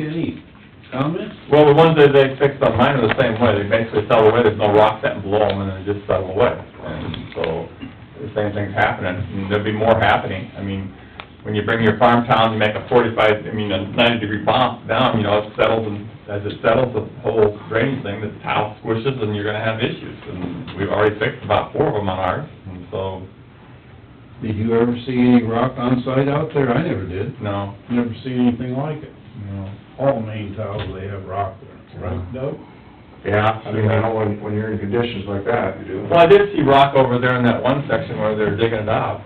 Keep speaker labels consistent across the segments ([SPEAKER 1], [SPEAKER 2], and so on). [SPEAKER 1] any comments?
[SPEAKER 2] Well, the ones that they fixed on mine are the same way, they basically fell away, there's no rock that can blow them, and they just settle away. And so, the same thing's happening, and there'll be more happening. I mean, when you bring your farm town, you make a forty-five, I mean, a ninety-degree bump down, you know, it settles, and as it settles, the whole drainage thing, the tile squishes, and you're gonna have issues. And we've already fixed about four of them on ours, and so,
[SPEAKER 1] Did you ever see any rock on site out there? I never did.
[SPEAKER 2] no,
[SPEAKER 1] Never seen anything like it.
[SPEAKER 2] no.
[SPEAKER 1] All main tiles, they have rock there, right, Doug?
[SPEAKER 2] Yeah.
[SPEAKER 3] I mean, I know when, when you're in conditions like that, you do.
[SPEAKER 2] Well, I did see rock over there in that one section where they're digging it up.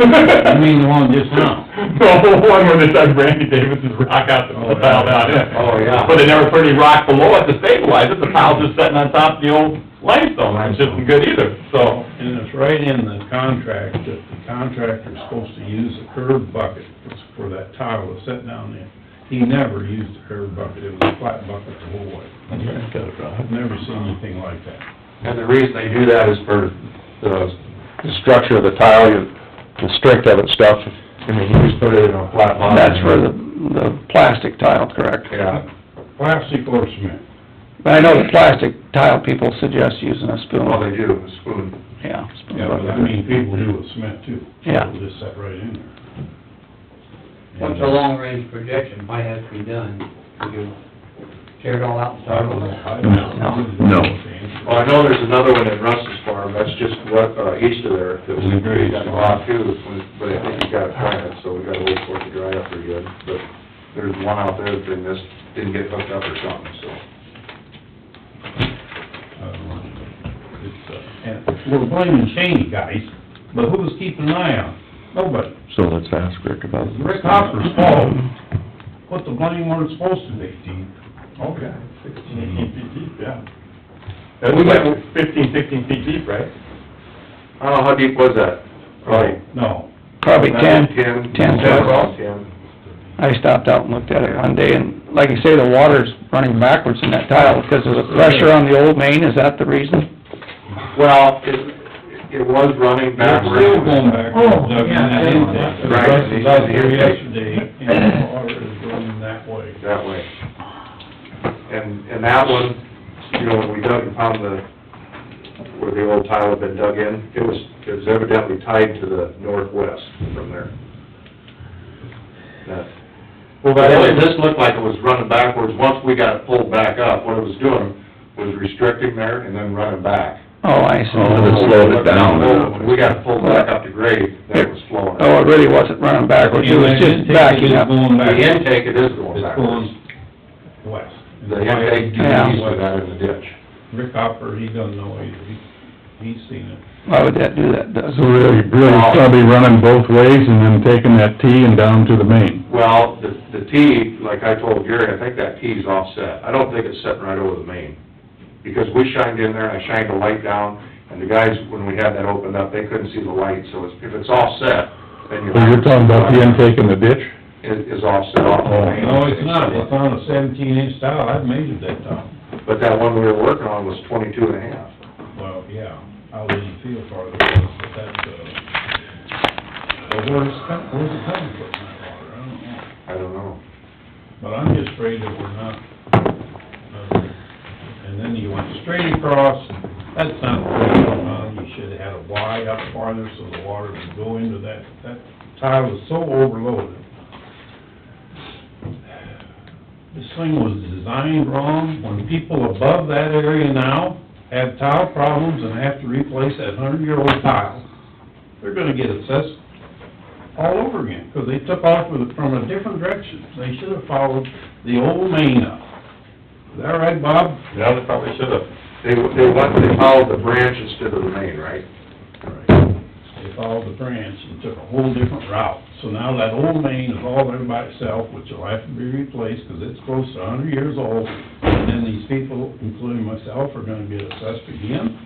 [SPEAKER 1] I mean, the one just now.
[SPEAKER 2] No, the one where they dug Randy Davis's rock out to
[SPEAKER 1] Oh,
[SPEAKER 2] put tile down in.
[SPEAKER 3] Oh, yeah.
[SPEAKER 2] But they never put any rock below it to stabilize it, the pile's just sitting on top of the old limestone, which isn't good either, so.
[SPEAKER 1] And it's right in the contract that the contractor's supposed to use a curb bucket for that tile to set down there. He never used a curb bucket, it was a flat bucket the whole way. I've never seen anything like that.
[SPEAKER 3] And the reason they do that is for the, the structure of the tile, you- the strength of it stuff. I mean, you just put it in a flat line.
[SPEAKER 4] Uh, That's for the, the plastic tile, correct?
[SPEAKER 3] Yeah.
[SPEAKER 1] Plastic or cement?
[SPEAKER 4] But I know the plastic tile people suggest using a spoon,
[SPEAKER 3] Well, they do, a spoon.
[SPEAKER 4] yeah. spoon
[SPEAKER 1] Yeah, but I
[SPEAKER 4] bucket.
[SPEAKER 1] mean, people do with cement too.
[SPEAKER 4] Yeah.
[SPEAKER 1] It'll just set right in there.
[SPEAKER 5] What's a long-range projection might have to be done, would you tear it all out
[SPEAKER 1] I
[SPEAKER 5] and start
[SPEAKER 1] don't know.
[SPEAKER 5] over?
[SPEAKER 1] I don't know.
[SPEAKER 6] No.
[SPEAKER 3] Well, Oh, I know there's another one at Russ's farm, that's just what, uh, east of there, that we agreed on lot too, but I think you gotta try it, so we gotta wait for it to dry up pretty good. But there's one out there that they missed, didn't get hooked up or something, so.
[SPEAKER 1] I don't know. It's, uh, And we're blaming Cheney, guys, but who was keeping an eye on? it? Nobody.
[SPEAKER 6] So let's ask Rick about this.
[SPEAKER 1] Rick Hopper's fault. Put the blame where it's supposed to be, Dean.
[SPEAKER 2] Okay, sixteen feet deep, yeah. That was
[SPEAKER 3] We
[SPEAKER 2] like
[SPEAKER 3] got-
[SPEAKER 2] fifteen, sixteen feet deep, right?
[SPEAKER 3] I don't know, how deep was that? Probably
[SPEAKER 1] No.
[SPEAKER 4] Probably ten,
[SPEAKER 3] Ten.
[SPEAKER 4] ten
[SPEAKER 3] Ten,
[SPEAKER 4] foot.
[SPEAKER 3] about ten.
[SPEAKER 4] I stopped out and looked at it one day, and like you say, the water's running backwards in that tile because of the pressure on the old main, is that the reason?
[SPEAKER 3] Well, it, it was running backwards.
[SPEAKER 1] Still going back.
[SPEAKER 4] Oh,
[SPEAKER 1] Doug, and that
[SPEAKER 3] yeah.
[SPEAKER 1] intake.
[SPEAKER 3] Right.
[SPEAKER 1] Russ was out there yesterday, and the water is running that way.
[SPEAKER 3] that way. And, and that one, you know, when we dug and found the, where the old tile had been dug in, it was, it was evidently tied to the northwest from there. That,
[SPEAKER 2] Well,
[SPEAKER 3] but really, this looked like it was running backwards, once we got it pulled back up, what it was doing was restricting there and then running back.
[SPEAKER 4] Oh, I
[SPEAKER 6] it
[SPEAKER 4] see.
[SPEAKER 6] slowed it down.
[SPEAKER 3] When We got it pulled back up to grade, that was flowing.
[SPEAKER 4] Oh, it really wasn't running backwards, it was just backing up.
[SPEAKER 1] Going
[SPEAKER 3] The
[SPEAKER 1] back.
[SPEAKER 3] intake, it is going
[SPEAKER 1] It's
[SPEAKER 3] backwards.
[SPEAKER 1] going west.
[SPEAKER 3] The intake, you
[SPEAKER 4] Yeah.
[SPEAKER 3] can use that in the ditch.
[SPEAKER 1] Rick Hopper, he doesn't know either, he, he's seen it.
[SPEAKER 4] Why would that do that, Doug?
[SPEAKER 6] So really, really probably running both ways and then taking that T and down to the main.
[SPEAKER 3] Well, the, the T, like I told Gary, I think that T's offset. I don't think it's sitting right over the main. Because we shined in there, and I shined a light down, and the guys, when we had that opened up, they couldn't see the light, so it's, if it's offset, then you're...
[SPEAKER 6] So Oh, you're talking about the Oh. intake in the ditch?
[SPEAKER 3] Is, is offset off the main.
[SPEAKER 1] No, it's not, it's on a seventeen inch tile, I've measured that tile.
[SPEAKER 3] But that one we were working on was twenty-two and a half.
[SPEAKER 1] Well, yeah, I wouldn't feel farther, but that's, uh, but where's, it com- where's it coming from, that water, I don't know.
[SPEAKER 3] I don't know.
[SPEAKER 1] But I'm just afraid that we're not, uh, and then you went straight across, that's not straight on, you should have had a Y up farther so the water would go into that, that tile was so overloaded. This thing was designed wrong, when people above that area now have tile problems and have to replace that hundred-year-old tile, they're gonna get assessed all over again, 'cause they took off with, from a different direction. They should have followed the old main up. Is that right, Bob?
[SPEAKER 2] Yeah, they probably should've.
[SPEAKER 3] They, they went, they followed the branch instead of the main, right?
[SPEAKER 1] They followed the branch and took a whole different route. So now that old main is all there by itself, which will have to be replaced, 'cause it's close to a hundred years old. And then these people, including myself, are gonna get assessed again.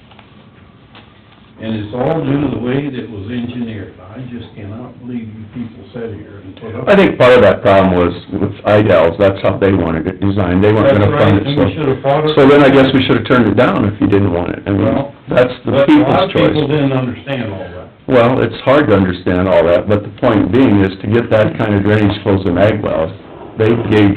[SPEAKER 1] And it's all due to the way that it was engineered. I just cannot believe you people sat here and put up.
[SPEAKER 6] I think part of that problem was with Idells, that's how they wanted it designed, they weren't
[SPEAKER 1] That's
[SPEAKER 6] gonna
[SPEAKER 1] right,
[SPEAKER 6] fund
[SPEAKER 1] and we should
[SPEAKER 6] it,
[SPEAKER 1] have fought
[SPEAKER 6] so.
[SPEAKER 1] it.
[SPEAKER 6] So then I guess we should've turned it down if you didn't want it, I mean,
[SPEAKER 1] Well,
[SPEAKER 6] that's the
[SPEAKER 1] But a lot
[SPEAKER 6] people's
[SPEAKER 1] of people
[SPEAKER 6] choice.
[SPEAKER 1] didn't understand all that.
[SPEAKER 6] Well, it's hard to understand all that, but the point being is to get that kind of drainage closed in ag wells, they gave